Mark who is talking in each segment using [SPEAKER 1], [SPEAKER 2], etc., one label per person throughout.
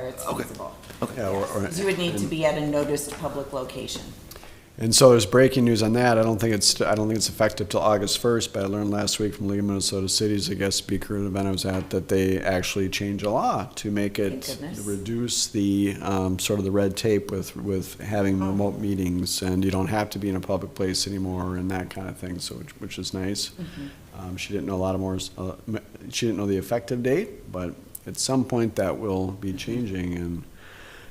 [SPEAKER 1] Okay.
[SPEAKER 2] feasible.
[SPEAKER 1] Okay.
[SPEAKER 3] Yeah, or- or-
[SPEAKER 2] Because you would need to be at a noticed public location.
[SPEAKER 3] And so there's breaking news on that. I don't think it's, I don't think it's effective till August 1st, but I learned last week from League of Minnesota Cities, I guess speaker at an event I was at, that they actually changed a law to make
[SPEAKER 2] Thank
[SPEAKER 3] it,
[SPEAKER 2] goodness.
[SPEAKER 3] reduce the, um, sort of the red tape with, with having
[SPEAKER 2] Oh.
[SPEAKER 3] remote meetings, and you don't have to be in a public place anymore and that kind of thing, so, which- which is nice.
[SPEAKER 2] Mm-hmm.
[SPEAKER 3] Um, She didn't know a lot of more, uh, m- she didn't know the effective date, but at some point that will be changing, and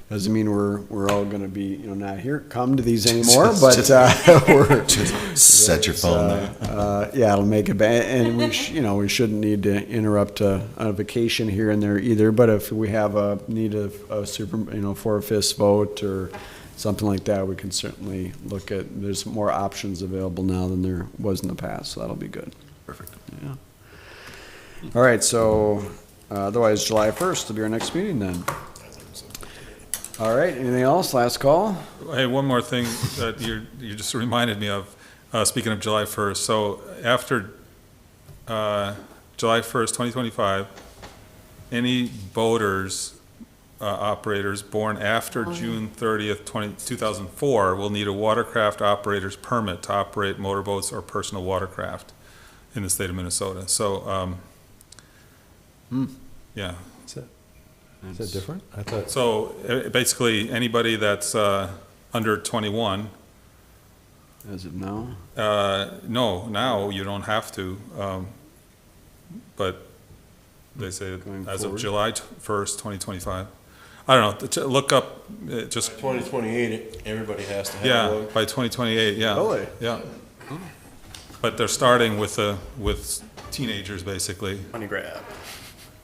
[SPEAKER 3] doesn't mean we're, we're all gonna be, you know, not here, come to these anymore, but, uh, we're.
[SPEAKER 1] Set your phone there.
[SPEAKER 3] Uh, yeah, it'll make it, ba- and we, sh- you know, we shouldn't need to interrupt a, a vacation here and there either, but if we have a, need a, a super, you know, four fifths vote or something like that, we can certainly look at, there's more options available now than there was in the past, so that'll be good.
[SPEAKER 1] Perfect.
[SPEAKER 3] All right, so uh, otherwise, July 1st will be our next meeting then. All right, anything else? Last call?
[SPEAKER 4] Hey, one more thing that you, you just reminded me of, uh, speaking of July first, so after, uh, July first, twenty twenty-five, any boaters, uh, operators born after June thirtieth, twenty, two thousand four will need a watercraft operator's permit to operate motorboats or personal watercraft in the state of Minnesota, so, um, yeah,
[SPEAKER 5] Is that different? I thought,
[SPEAKER 4] so uh, basically, anybody that's, uh, under twenty-one
[SPEAKER 3] As of now?
[SPEAKER 4] Uh, no, now you don't have to, um, but they say
[SPEAKER 3] Going
[SPEAKER 4] as of
[SPEAKER 3] forward.
[SPEAKER 4] July t- first, twenty twenty-five. I don't know, t- look up, uh, just,
[SPEAKER 5] 2028, everybody has to have
[SPEAKER 4] yeah,
[SPEAKER 5] one.
[SPEAKER 4] by twenty twenty-eight, yeah.
[SPEAKER 3] Really?
[SPEAKER 4] Yeah. But they're starting with, uh, with teenagers, basically,
[SPEAKER 6] Money grab.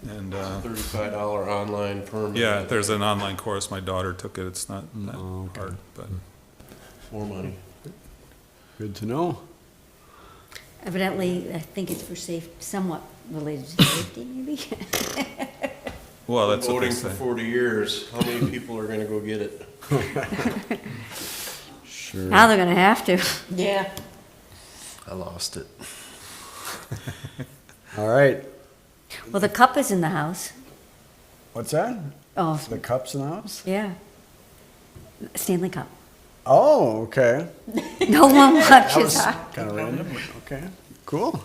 [SPEAKER 4] and, uh,
[SPEAKER 5] $35 online permit.
[SPEAKER 4] yeah, there's an online course, my daughter took it, it's not that
[SPEAKER 3] Mm, okay.
[SPEAKER 4] hard, but.
[SPEAKER 5] More money.
[SPEAKER 3] Good to know.
[SPEAKER 7] Evidently, I think it's for safe, somewhat related to safety, maybe.
[SPEAKER 4] Well, that's what they
[SPEAKER 5] Voting for
[SPEAKER 4] say.
[SPEAKER 5] 40 years, how many people are going to go get it?
[SPEAKER 3] Sure.
[SPEAKER 7] Now they're gonna have to.
[SPEAKER 2] Yeah.
[SPEAKER 1] I lost it.
[SPEAKER 3] All right.
[SPEAKER 7] Well, the cup is in the house.
[SPEAKER 3] What's that?
[SPEAKER 7] Oh,
[SPEAKER 3] The cups and hops?
[SPEAKER 7] yeah. Stanley Cup.
[SPEAKER 3] Oh, okay.
[SPEAKER 7] No one watches.
[SPEAKER 3] Kind of random. Okay, cool.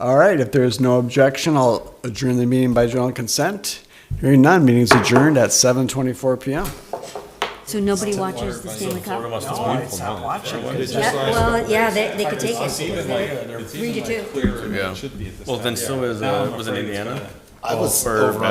[SPEAKER 3] All right, if there's no objection, I'll adjourn the meeting by general consent. Hearing none, meeting's adjourned at 7:24 PM.
[SPEAKER 7] So nobody watches the Stanley Cup? Yeah,
[SPEAKER 4] Just
[SPEAKER 7] well, yeah, they, they could take it. Three to two.
[SPEAKER 6] Well, then so is, uh, was it Indiana?
[SPEAKER 1] I was
[SPEAKER 6] Or
[SPEAKER 1] over on